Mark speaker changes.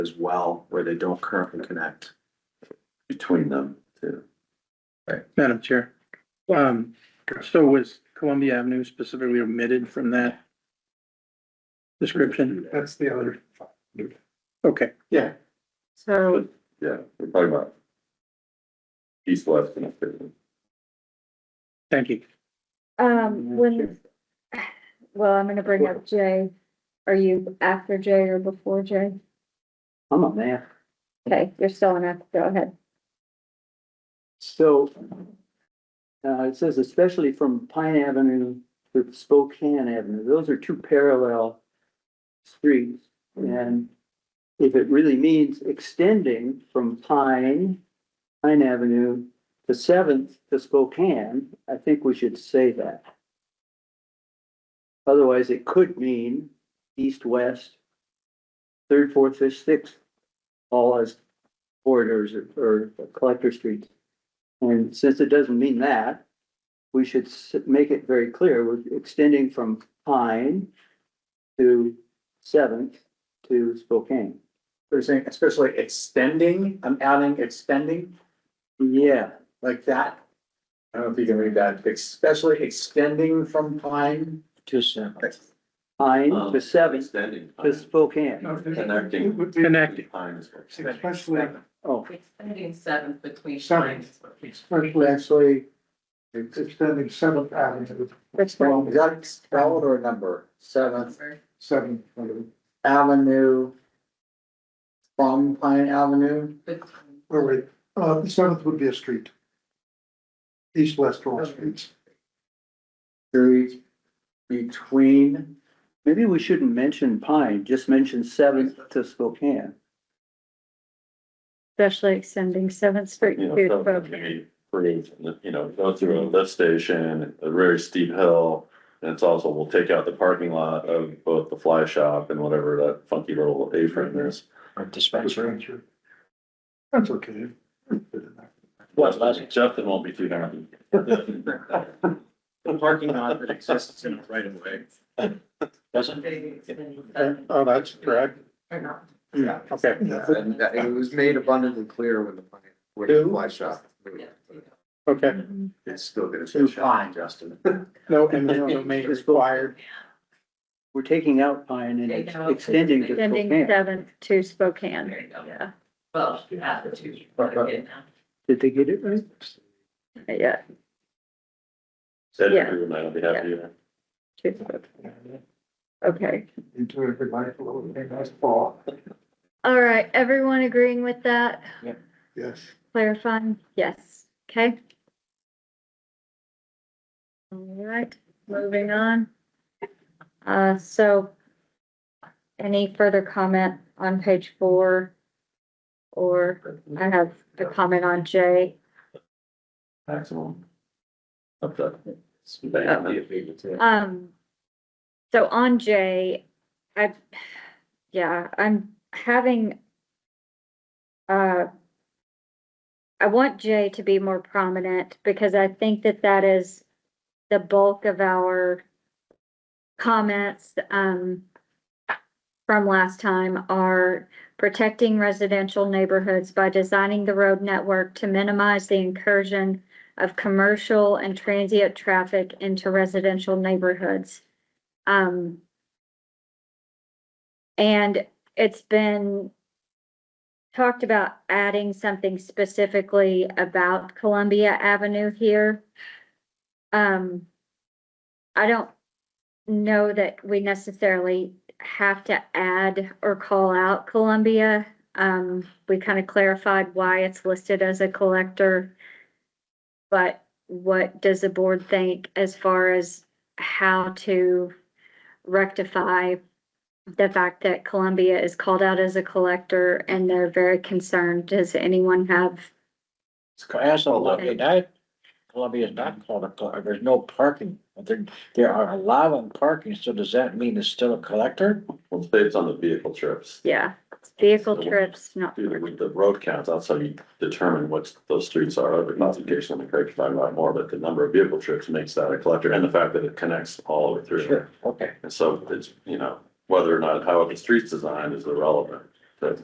Speaker 1: as well, where they don't currently connect.
Speaker 2: between them too.
Speaker 3: Madam Chair, um, so was Columbia Avenue specifically omitted from that description?
Speaker 4: That's the other.
Speaker 3: Okay,
Speaker 4: Yeah.
Speaker 5: So
Speaker 2: Yeah, we're talking about east, west connectivity.
Speaker 3: thank you.
Speaker 5: Um, when, well, I'm gonna bring up Jay. Are you after Jay or before Jay?
Speaker 4: I'm a man.
Speaker 5: Okay, you're still on after, go ahead.
Speaker 4: So, uh, it says especially from Pine Avenue to Spokane Avenue, those are two parallel streets. And if it really means extending from Pine, Pine Avenue to Seventh to Spokane, I think we should say that. Otherwise, it could mean east, west, third, fourth, fifth, sixth, all as corridors or- or collector streets. And since it doesn't mean that, we should s- make it very clear, we're extending from Pine to Seventh to Spokane.
Speaker 1: They're saying especially extending, I'm adding extending
Speaker 4: Yeah,
Speaker 1: like that. I don't know if you can read that, especially extending from Pine.
Speaker 4: to Seventh. Pine
Speaker 2: Um,
Speaker 4: to Seventh
Speaker 2: Extending.
Speaker 4: to Spokane.
Speaker 2: Connecting.
Speaker 6: It would be
Speaker 3: Connecting,
Speaker 2: Pine is what-
Speaker 6: Especially,
Speaker 4: Oh,
Speaker 7: Extending seventh between.
Speaker 6: Seventh. especially actually extending Seventh Avenue,
Speaker 5: Which one?
Speaker 1: Well, is that spelled or number? Seventh
Speaker 6: Seventh, Avenue,
Speaker 1: Avenue. From Pine Avenue.
Speaker 6: or wait, uh, Seventh would be a street. East-west all streets.
Speaker 1: Through between,
Speaker 4: maybe we shouldn't mention Pine, just mention Seventh to Spokane.
Speaker 5: Especially extending Seventh Street
Speaker 2: You know,
Speaker 5: to
Speaker 2: some of them
Speaker 5: Spokane.
Speaker 2: maybe create, you know, go through a lift station, a very steep hill. And it's also, we'll take out the parking lot of both the fly shop and whatever that funky little apron is.
Speaker 6: Dispatcher. That's okay.
Speaker 2: Well, Justin won't be too happy.
Speaker 1: the parking lot that exists in the right of way.
Speaker 6: Oh, that's correct.
Speaker 7: Or not.
Speaker 1: Yeah.
Speaker 3: okay.
Speaker 8: And that- it was made abundantly clear when the, plan- when the fly shop.
Speaker 7: Yeah.
Speaker 3: Okay,
Speaker 8: It's still gonna
Speaker 1: To
Speaker 8: say shop.
Speaker 1: Pine, Justin.
Speaker 3: no, and no domain required.
Speaker 4: We're taking out Pine and it's
Speaker 7: Take out.
Speaker 4: extending to
Speaker 5: Extending
Speaker 4: Spokane.
Speaker 5: Seventh to Spokane.
Speaker 7: There you go.
Speaker 5: Yeah,
Speaker 7: Well, at the two. but again, now.
Speaker 4: Did they get it right?
Speaker 5: yeah,
Speaker 2: Said
Speaker 5: Yeah.
Speaker 2: everyone, I'll be happy either.
Speaker 5: to Spokane. Okay,
Speaker 6: Into everybody, a little bit nice ball,
Speaker 5: all right, everyone agreeing with that?
Speaker 6: yes.
Speaker 5: Clarifying, yes, okay. All right, moving on. Uh, so any further comment on page four? Or I have a comment on J.
Speaker 2: Maximum. Up to. Bang.
Speaker 5: Um, so on J, I, yeah, I'm having, uh, I want J to be more prominent because I think that that is the bulk of our comments, um, from last time are protecting residential neighborhoods by designing the road network to minimize the incursion of commercial and transient traffic into residential neighborhoods. Um, and it's been talked about adding something specifically about Columbia Avenue here. Um, I don't know that we necessarily have to add or call out Columbia. Um, we kind of clarified why it's listed as a collector. But what does the board think as far as how to rectify the fact that Columbia is called out as a collector and they're very concerned? Does anyone have?
Speaker 9: That's all
Speaker 5: Well,
Speaker 9: I mean, I, Columbia is not called a, collector. there's no parking, but there, there are allowing parking, so does that mean it's still a collector?
Speaker 2: Well, say it's on the vehicle trips.
Speaker 5: Yeah, vehicle
Speaker 2: So-
Speaker 5: trips, not,
Speaker 2: Do the, with the road counts, that's how you determine what those streets are, the classification, I'm correct if I'm wrong more, but the number of vehicle trips makes that a collector and the fact that it connects all the way through.
Speaker 9: Okay,
Speaker 2: And so it's, you know, whether or not how the street's designed is irrelevant.